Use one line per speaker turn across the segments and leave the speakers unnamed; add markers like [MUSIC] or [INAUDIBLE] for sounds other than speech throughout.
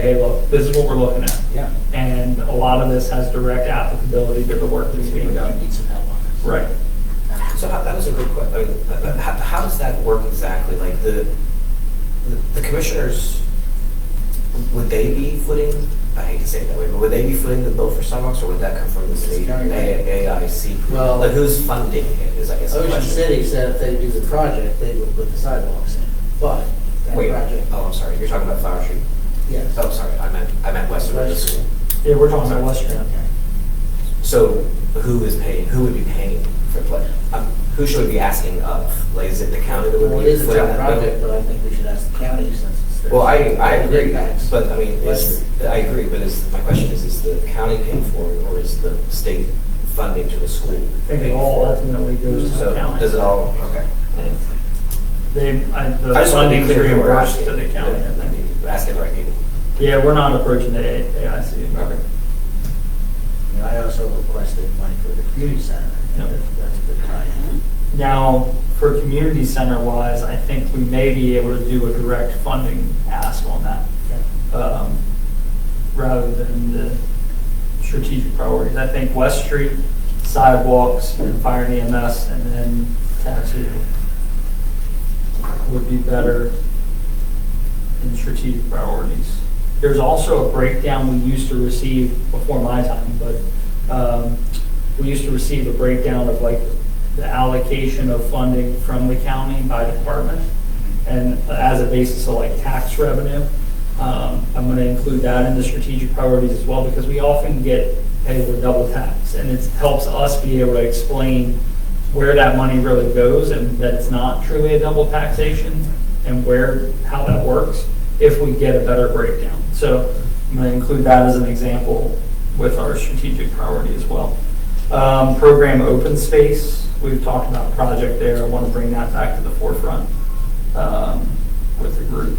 hey, look, this is what we're looking at.
Yeah.
And a lot of this has direct applicability to the work that's being done.
Need some help on it.
Right.
So how, that was a good question. I mean, uh, uh, how, how does that work exactly? Like the, the- the commissioners, would they be footing, I hate to say it that way, but would they be footing the bill for sidewalks or would that come from the city?
county.
A- AIC?
Well-
Like who's funding it is I guess the
Ocean
question.
City said if they do the project, they would put the sidewalks in, but that
Wait,
project,
oh, I'm sorry, you're talking about Flower Street.
yes.
Oh, sorry, I meant, I meant Westwood.
Westwood.
Yeah, we're talking about West Stream.
So who is paying, who would be paying for, like, um, who should we be asking of? Like, is it the county that would be?
Well, it is a
footing
town
that bill?
project, but I think we should ask the county since it's their.
Well, I, I agree,
Impacts.
but I mean, is, I agree, but is, my question is, is the county paying for it, or is the state funding to the school?
I think it all ultimately goes to
So,
the county.
does it all, okay.
They, I- the
I just want to be
funding is
clear where we're
reimbursed
asking.
to the county. I think.
Asking the right people.
Yeah, we're not approaching the A- AIC.
Okay.
And I also requested money for the community center,
Yep.
and that's- that's the time.
Uh-huh. Now, for community center wise, I think we may be able to do a direct funding ask on that. um, rather than the strategic priorities. I think West Street, sidewalks, and fire and EMS, and then tattoo would be better in strategic priorities. There's also a breakdown we used to receive before my time, but um, we used to receive a breakdown of like the allocation of funding from the county by department and as a basis of like tax revenue. Um, I'm going to include that in the strategic priorities as well, because we often get, hey, we're double taxed, and it helps us be able to explain where that money really goes, and that it's not truly a double taxation, and where, how that works, if we get a better breakdown. So I'm going to include that as an example with our strategic priority as well. Um, Program open space, we've talked about a project there, I want to bring that back to the forefront um, with the group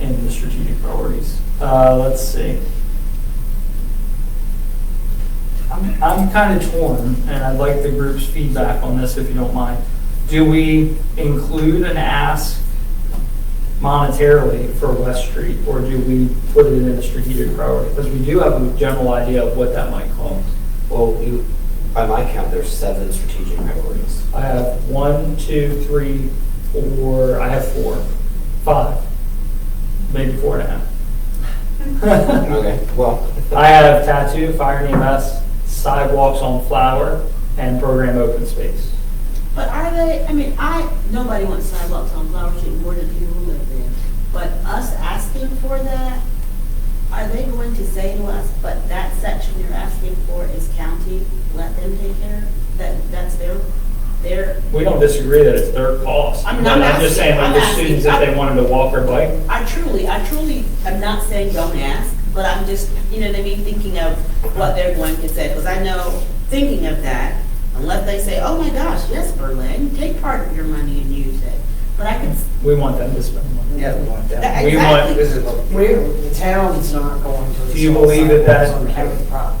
and the strategic priorities. Uh, Let's see. I'm, I'm kind of torn, and I'd like the group's feedback on this if you don't mind. Do we include an ask monetarily for West Street, or do we put it in a strategic priority? Because we do have a general idea of what that might cost.
Well, you, by my count, there's seven strategic priorities.
I have one, two, three, four, I have four, five, maybe four and a half. [LAUGHS]
Okay, well,
I have tattoo, fire and EMS, sidewalks on flower, and program open space.
But are they, I mean, I, nobody wants sidewalks on Flower Street more than people who live there. But us asking for that, are they going to say to us, but that section you're asking for is county, let them take care? That, that's their, their,
We don't disagree that it's their cost.
I'm not
I'm just saying, like,
asking-
the
I'm
students, if
asking-
they wanted to walk or bike,
I truly, I truly am not saying don't ask, but I'm just, you know what I mean, thinking of what they're going to say, because I know, thinking of that, unless they say, oh my gosh, yes, Berlin, take part of your money and use it. But I could,
we want them to spend money.
Yeah, we want that.
that-
We want-
exactly,
This is what-
We, the town's not going to.
Do you believe that that's-
On county property.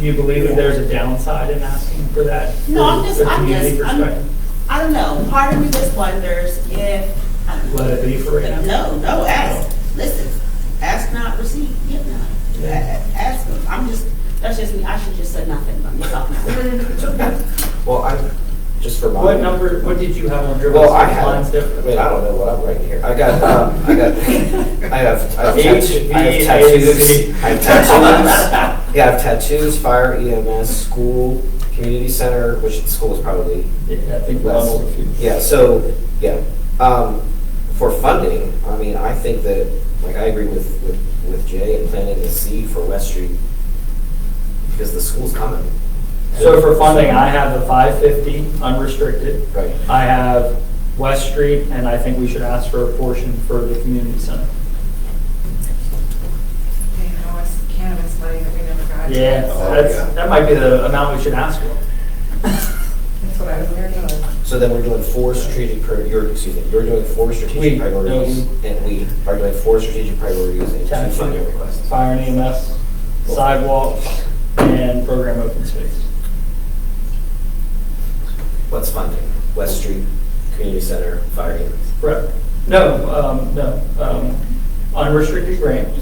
Do you believe that there's a downside in asking for that?
No, I'm just-
from a
I'm
community
just- I'm-
perspective?
I don't know, part of me just wonders if. I don't know.
Let it be for right now?
No, no, ask, listen, ask not, receive, give not. A- a- Ask, I'm just, that's just me, I should just say nothing, but I'm talking
well, I'm, just for my.
What number, what did you have on your list?
Well, I
Which Lines
have, I
different.
mean, I don't know what I'm writing here. I got, um,
[LAUGHS]
I got, I have, I have tattoos, I have [LAUGHS]
HVAC.
tattoos, I have tattoos. Yeah, I have tattoos, fire, EMS, school, community center, which the school is probably
Yeah, I think
less.
level.
Yeah, so, yeah, um, for funding, I mean, I think that, like, I agree with, with, with Jay and planting a seed for West Street because the school's coming.
So for funding, I have the 550 unrestricted.
Right.
I have West Street, and I think we should ask for a portion for the community center.
They know it's cannabis money that we never got.
Yeah,
Oh, yeah.
that's, that might be the amount we should ask for.
[LAUGHS]
That's what I was hearing.
So then we're doing four strategic, prior- you're, excuse me, you're doing four
We-
strategic priorities, and we are doing four strategic priorities and two funding requests.
Fire and EMS, sidewalks, and program open space.
What's funding? West Street, Community Center, Fire Units.
Correct. No, um, no, um, unrestricted grant,